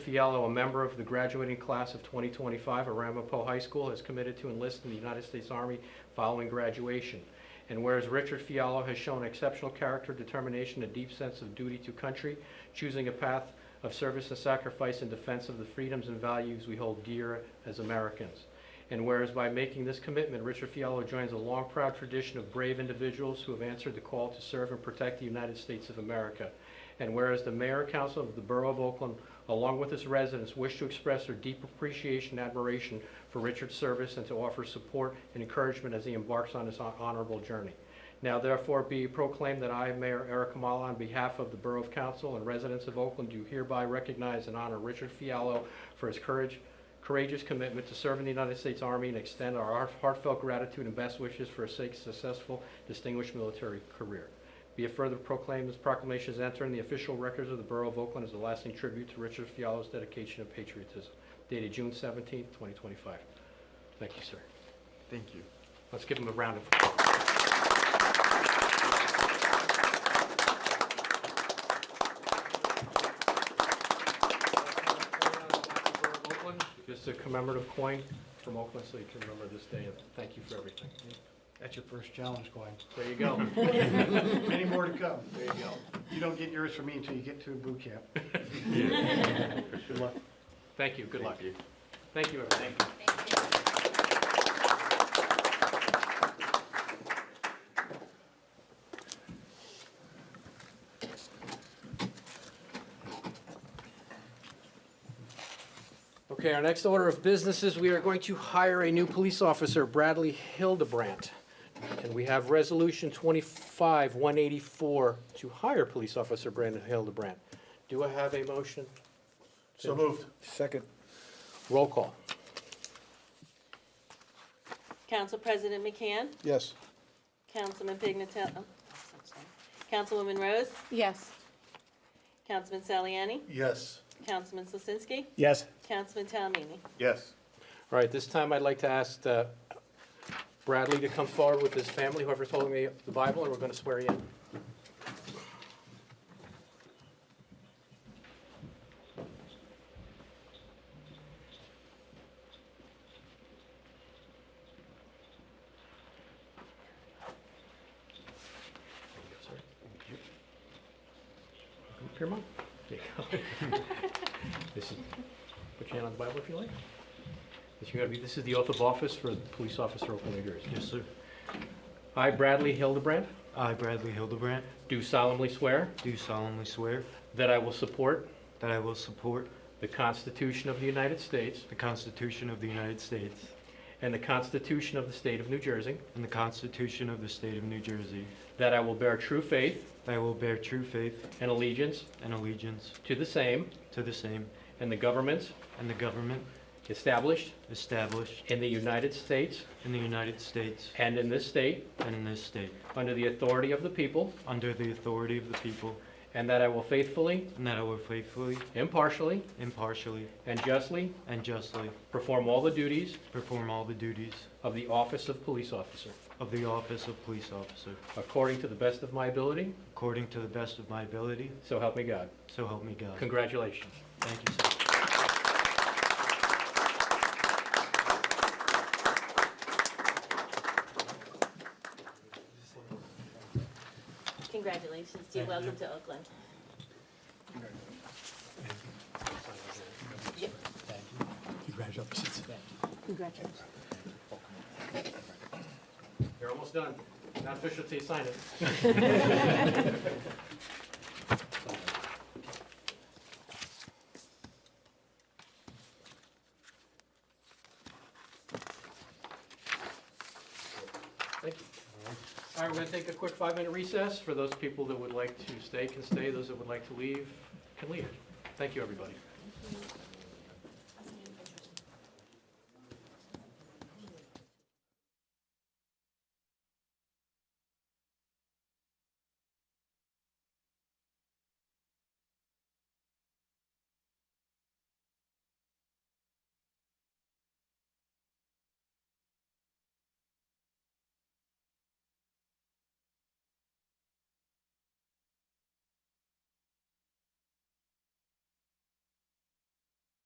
Fiallo, a member of the graduating class of 2025 at Ramapo High School, has committed to enlist in the United States Army following graduation. And whereas Richard Fiallo has shown exceptional character, determination, and deep sense of duty to country, choosing a path of service and sacrifice in defense of the freedoms and values we hold dear as Americans. And whereas by making this commitment, Richard Fiallo joins a long proud tradition of brave individuals who have answered the call to serve and protect the United States of America. And whereas the mayor and council of the borough of Oakland, along with its residents, wish to express their deep appreciation and admiration for Richard's service and to offer support and encouragement as he embarks on his hon- honorable journey. Now therefore be proclaimed that I, Mayor Eric Kamala, on behalf of the Borough Council and residents of Oakland, do hereby recognize and honor Richard Fiallo for his courage, courageous commitment to serving the United States Army and extend our heart- heartfelt gratitude and best wishes for his sake- successful, distinguished military career. Be it further proclaimed, this proclamation is entered in the official records of the Borough of Oakland as a lasting tribute to Richard Fiallo's dedication and patriotism, dated June 17, 2025. Thank you, sir. Thank you. Let's give him a round of applause. Just a commemorative coin from Oakland, so you can remember this day, and thank you for everything. That's your first challenge coin. There you go. Many more to come. There you go. You don't get yours from me until you get to boot camp. Good luck. Thank you, good luck. Thank you, everyone. Okay, our next order of business is we are going to hire a new police officer, Bradley Hildebrandt. And we have Resolution 25-184 to hire police officer Brandon Hildebrandt. Do I have a motion? So moved. Second. Roll call. Council President McCann, Yes. Councilman Pignatello, oh, I'm sorry. Councilwoman Rose, Yes. Councilman Saliani, Yes. Councilman Slisinski, Yes. Councilman Talamini. Yes. All right, this time I'd like to ask uh, Bradley to come forward with his family, whoever's holding the the Bible, and we're going to swear you in. Here, Mom. There you go. This is, put your hand on the Bible if you like. This, you gotta be, this is the oath of office for the police officer of New Jersey. Yes, sir. I, Bradley Hildebrand, I, Bradley Hildebrand, do solemnly swear do solemnly swear that I will support that I will support the Constitution of the United States the Constitution of the United States and the Constitution of the State of New Jersey, and the Constitution of the State of New Jersey, that I will bear true faith that I will bear true faith and allegiance and allegiance to the same to the same and the governments and the government established established in the United States in the United States and in this state and in this state, under the authority of the people, under the authority of the people, and that I will faithfully, and that I will faithfully, impartially, impartially, and justly and justly perform all the duties perform all the duties of the office of police officer, of the office of police officer, according to the best of my ability, according to the best of my ability, so help me God. so help me God. Congratulations. Thank you, sir. Congratulations, you're welcome to Oakland. Congratulations. Congratulations. You're almost done. Not official till you sign it. Thank you. All right, we're going to take a quick five-minute recess. For those people that would like to stay, can stay. Those that would like to leave, can leave. Thank you, everybody.